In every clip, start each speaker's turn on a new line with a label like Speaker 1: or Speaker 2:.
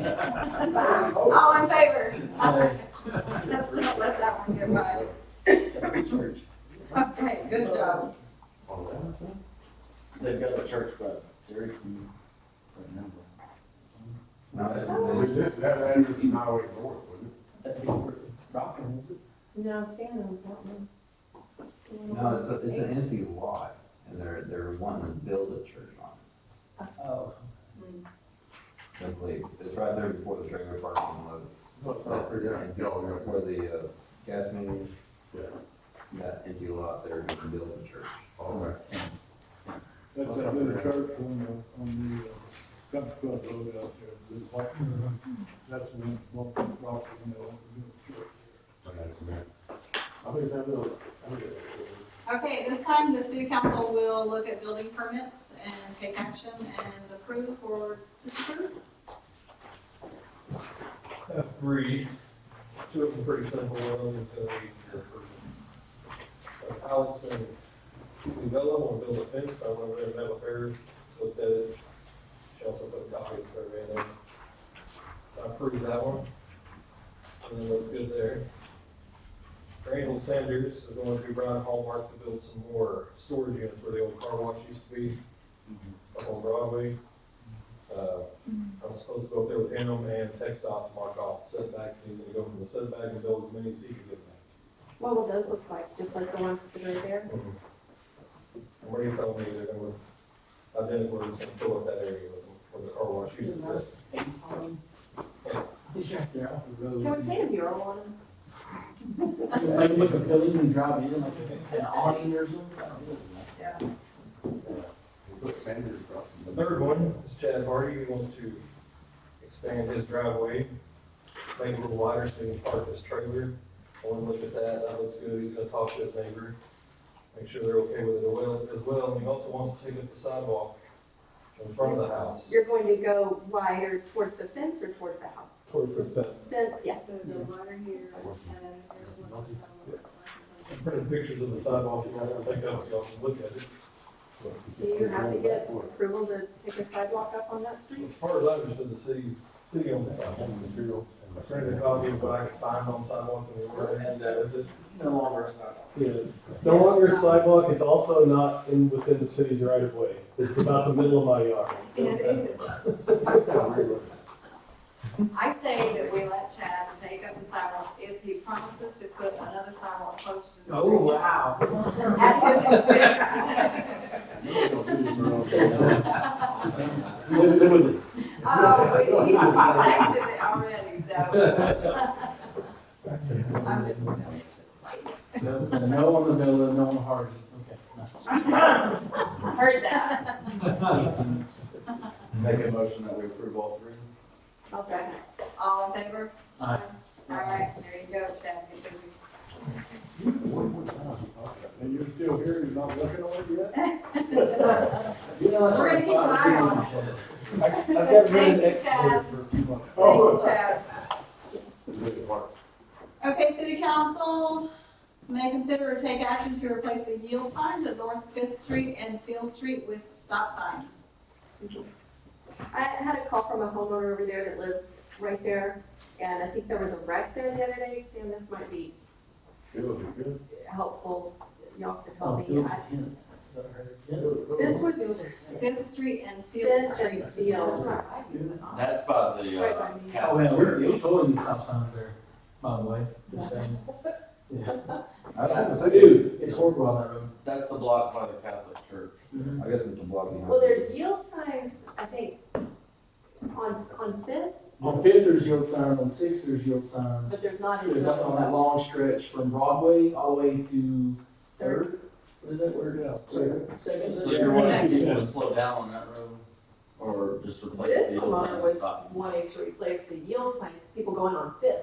Speaker 1: Oh,
Speaker 2: All in favor? Let's not let that one get by. Okay, good job.
Speaker 1: They've got a church, but Jerry can remember.
Speaker 3: No, that's,
Speaker 4: Oh.
Speaker 3: that's, that address is not always north, wasn't
Speaker 1: That'd be rocking, is it?
Speaker 4: No, Stan owns that one.
Speaker 5: No, it's a, it's an empty lot, and they're, they're wanting to build a church on
Speaker 1: Oh.
Speaker 5: it, I believe. It's right there before the trailer park on the, where the, uh, gas main is.
Speaker 3: Yeah.
Speaker 5: That empty lot there, you can build a church.
Speaker 3: it? Okay.
Speaker 6: That's that little church on the, on the, uh, country club road out there, the white, that's when, one, rock, you know, the church.
Speaker 3: I think that little, I think that-
Speaker 2: Okay, this time the city council will look at building permits and take action and approve or disapprove.
Speaker 7: Three, two of them pretty simple, one until we approve. Alex and Vella want to build a fence, I went over there and met with her, looked at it. She also put a copy of the survey in there. So I approved that one. And then looks good there. Randall Sanders is going to Brian Hallmark to build some more storage units where the old car wash used to be up on Broadway. Uh, I'm supposed to go up there with him and text off to mark off setbacks, and he's gonna go from the setback and build as many as he can get back.
Speaker 4: What will those look like, just like the ones that are right there?
Speaker 7: And what he's telling me, they're gonna, and then we're just gonna fill up that area with, with the car wash uses this. Um,
Speaker 1: He's right there off the road.
Speaker 4: Can we paint a mural on them?
Speaker 1: Like with the building and drive in, like an awning or something.
Speaker 3: we put Sanders across
Speaker 7: The
Speaker 3: from the-
Speaker 7: third one is Chad Hardy, he wants to expand his driveway, make it a little wider so he can park his trailer. I wanna look at that, that looks good, he's gonna talk to his neighbor, make sure they're okay with it as well- as well, and he also wants to take up the sidewalk in front of the house.
Speaker 4: You're going to go wider towards the fence or towards the house?
Speaker 7: Towards the fence.
Speaker 4: Fence, yes.
Speaker 7: I printed pictures of the sidewalk, you guys can take those, y'all can look at it.
Speaker 4: Do you have to get approval to take a sidewalk up on that street?
Speaker 7: As far as I understood, the city's, city owns the sidewalk. I printed a copy of what I could find on sidewalks in the ordinance.
Speaker 1: And that is no longer a sidewalk.
Speaker 8: Yeah, it's- it's no longer a sidewalk, it's also not in, within the city's right of way. It's about the middle of my yard.
Speaker 2: I say that we let Chad take up the sidewalk if he promises to put another sidewalk closer to the street.
Speaker 1: Oh, wow.
Speaker 2: At his expense. Oh, we- he's seconded it already, so. I'm just, I'm just.
Speaker 1: So, so no on the building, no on Hardy, okay.
Speaker 2: Heard that.
Speaker 3: Make a motion that we approve all three?
Speaker 4: I'll second.
Speaker 2: All in favor?
Speaker 1: Aye.
Speaker 2: All right, there you go, Chad, get busy.
Speaker 6: And you're still here, you're not looking on it yet?
Speaker 1: You know, that's
Speaker 2: We're gonna keep an eye on
Speaker 1: it.
Speaker 6: I've got
Speaker 2: Thank you, Chad.
Speaker 6: for a few months.
Speaker 2: Thank you,
Speaker 3: Oh.
Speaker 2: Chad.
Speaker 3: Make it work.
Speaker 2: Okay, city council may consider or take action to replace the yield signs at North Fifth Street and Field Street with stop signs.
Speaker 4: I had a call from a homeowner over there that lives right there, and I think there was a wreck there the other day, Stan, this might be
Speaker 3: It would be good.
Speaker 4: helpful, y'all could
Speaker 1: Oh,
Speaker 4: help me.
Speaker 1: Field
Speaker 4: I-
Speaker 1: Ten. Is that right? Yeah.
Speaker 4: This was
Speaker 2: Fifth Street and Field
Speaker 4: Fifth
Speaker 2: Street.
Speaker 4: and Field, right
Speaker 9: That's by the, uh,
Speaker 4: by me.
Speaker 1: Oh, man, we're, we're totally stop signs there, by the way, just saying. Yeah. I do, it's horrible on that Mm-hmm. road.
Speaker 9: that's the block by the Catholic Church.
Speaker 5: I guess it's the block behind.
Speaker 4: Well, there's yield signs, I think, on, on Fifth,
Speaker 1: On Fifth, there's yield signs, on Sixth, there's yield signs.
Speaker 4: but there's not
Speaker 1: There's
Speaker 4: any.
Speaker 1: nothing on that long stretch from Broadway all the way to Third. What is that word?
Speaker 6: Yeah.
Speaker 9: So
Speaker 1: Second.
Speaker 9: you're wanting people to slow down on that road or just replace the
Speaker 4: This
Speaker 9: yield
Speaker 4: homeowner
Speaker 9: sign and
Speaker 4: was
Speaker 9: stop?
Speaker 4: wanting to replace the yield signs, people going on Fifth.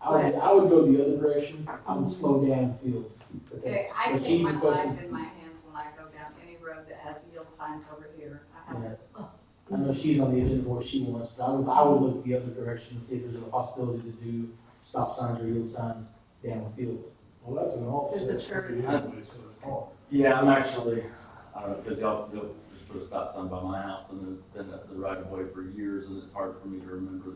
Speaker 1: I would, I would go the other direction, I would slow down field. But
Speaker 2: Okay,
Speaker 1: that's-
Speaker 2: I
Speaker 1: but
Speaker 2: take
Speaker 1: she
Speaker 2: my
Speaker 1: requested-
Speaker 2: life in my hands when I go down any road that has yield signs over here. I have
Speaker 1: Yes. I know she's on the agenda for what she wants, but I would, I would look the other direction and see if there's a possibility to do stop signs or yield signs down the field.
Speaker 6: Well, that's an offset.
Speaker 4: There's the church.
Speaker 6: Anyway, so it's hard.
Speaker 9: Yeah, I'm actually, I don't know, because y'all, y'all just put a stop sign by my house and then, then the right of way for years and it's hard for me to remember